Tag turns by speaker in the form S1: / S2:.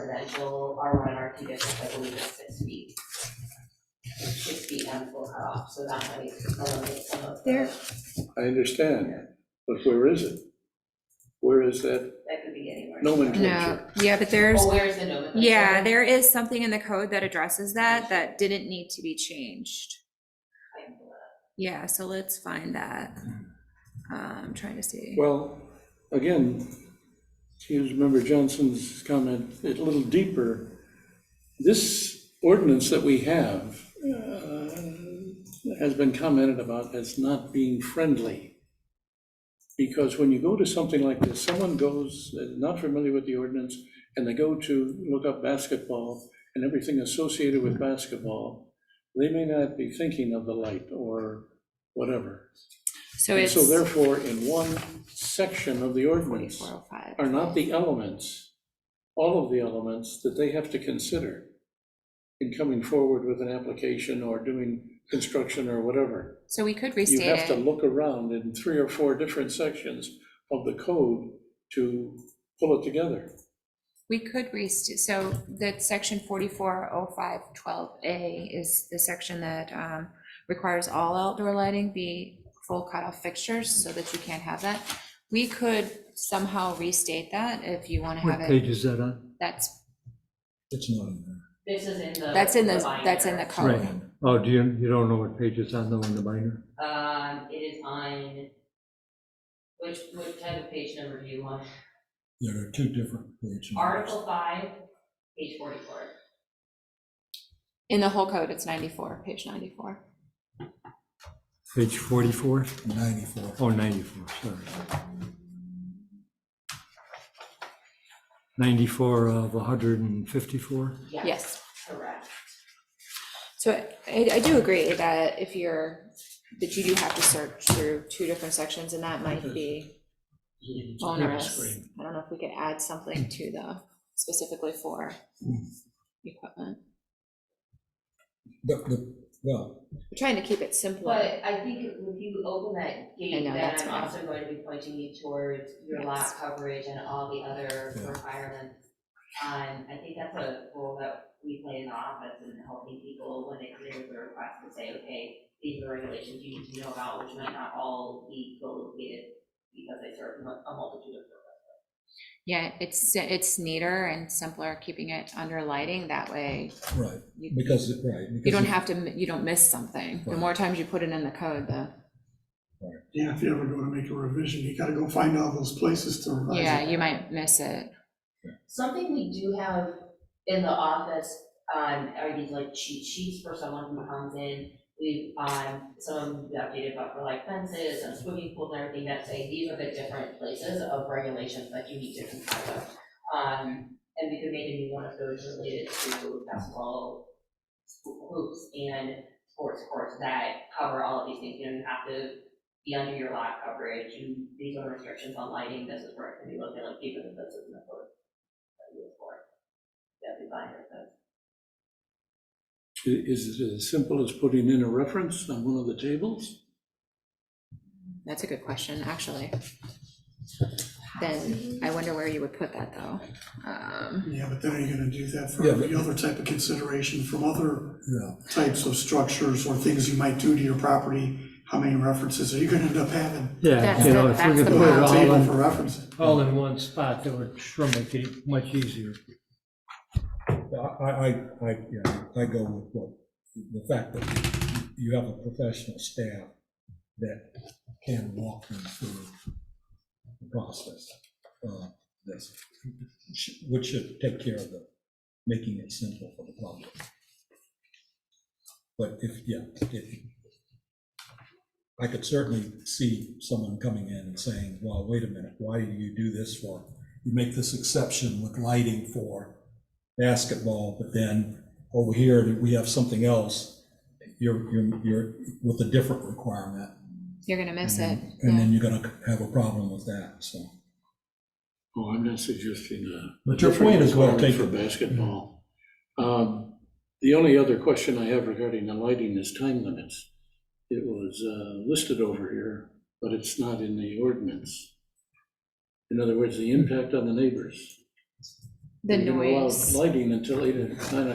S1: residential, R one and R two districts, I believe is six feet. Six feet on the full cutoff, so that might eliminate some of
S2: There.
S1: the,
S3: I understand, but where is it? Where is that
S1: that could be anywhere.
S3: nomenclature?
S2: No, yeah, but there's,
S1: Well, where is the nomenclature?
S2: yeah, there is something in the code that addresses that, that didn't need to be changed. Yeah, so let's find that. Um, trying to see.
S3: Well, again, use member Johnson's comment a little deeper. This ordinance that we have uh, has been commented about as not being friendly. Because when you go to something like this, someone goes, uh, not familiar with the ordinance, and they go to look up basketball and everything associated with basketball, they may not be thinking of the light or whatever.
S2: So
S3: And
S2: it's
S3: so therefore, in one section of the ordinance
S2: forty-four oh five.
S3: are not the elements, all of the elements that they have to consider in coming forward with an application or doing construction or whatever.
S2: So we could
S3: You
S2: restate
S3: have to
S2: it.
S3: look around in three or four different sections of the code to pull it together.
S2: We could restate, so that section forty-four oh five twelve A is the section that, um, requires all outdoor lighting be full cutoff fixtures so that you can't have that. We could somehow restate that if you want to
S4: What
S2: have it.
S4: page is that on?
S2: That's,
S5: It's not in
S1: This is in the.
S2: that's in the, that's
S1: binder.
S2: in the
S5: there.
S2: code.
S4: Oh, do you, you don't know what page it's on though in the binder?
S1: Um, it is on, which, which type of page number do you want?
S5: There are two different pages.
S1: Article five, page forty-four.
S2: In the whole code, it's ninety-four, page ninety-four.
S4: Page 44?
S5: Ninety-four.
S4: Oh, 94, sorry. 94 of 154?
S2: Yes.
S1: Correct.
S2: So I, I do agree that if you're, that you do have to search through two different sections, and that might be
S5: Mm-hmm.
S2: onerous. I don't know if we could add something to the, specifically for
S5: Mm.
S2: equipment.
S5: The, the, well,
S2: We're trying to keep it simpler.
S1: But I think if you open that
S2: I
S1: gate, then
S2: know, that's
S1: I'm
S2: fine.
S1: also going to be pointing you towards your
S2: Yes.
S1: lot coverage and all the other
S5: Yeah.
S1: requirements. Um, I think that's a role that we play in the office and helping people when they come in with a request to say, okay, these are regulations you need to know about, which might not all be co-located because they serve mu- a multitude of purposes.
S2: Yeah, it's, it's neater and simpler, keeping it under lighting, that way
S5: right,
S2: you,
S5: because, it- right. because
S2: you don't
S5: it-
S2: have to, m- you don't miss something. The
S5: Right.
S2: more times you put it in the code, the,
S6: Yeah, if you ever go to make a revision, you gotta go find all those places to revise it.
S2: yeah, you might miss it.
S1: Something we do have in the office, um, are these like cheat sheets for someone who comes in. We've, um, some we updated about for like fences and swimming pools and everything that say, these are the different places of regulations that you need to comply with. Um, and we could make a new one of those related to basketball hoops and sports courts that cover all of these things. You don't have to be under your lot coverage, you, these are restrictions on lighting, this is where it can be located, like even if this is in the code that you look for. That'd be fine, I think.
S3: I- Is it as simple as putting in a reference on one of the tables?
S2: That's a good question, actually. Then I wonder where you would put that, though. Um,
S6: Yeah, but then are you gonna do that for
S5: Yeah, but-
S6: the other type of consideration from other
S5: Yeah,
S6: types of structures or things you might do to your property? How many references are you gonna end up having?
S4: Yeah,
S2: That's the-
S4: you know, if
S2: that's
S4: we could
S2: the
S4: put it
S6: A
S4: all
S6: table for
S4: in,
S6: references.
S4: all in one spot, that would sure make it much easier.
S5: I, I, I, yeah, I go with what, the fact that you have a professional staff that can walk them through the process. uh, This, which should take care of the, making it simple for the public. But if, yeah, if, I could certainly see someone coming in and saying, well, wait a minute, why do you do this for? You make this exception with lighting for basketball, but then over here, we have something else. You're, you're, you're with a different requirement.
S2: You're gonna miss it.
S5: And
S2: yeah.
S5: then you're gonna have a problem with that, so.
S3: Oh, I'm not suggesting that.
S5: But your point is well
S3: Requirement
S5: taken.
S3: For basketball. Um, The only other question I have regarding the lighting is time limits. It was uh, listed over here, but it's not in the ordinance. In other words, the impact on the neighbors.
S2: the
S3: You're gonna allow
S2: noise.
S3: Lighting until eight, or nine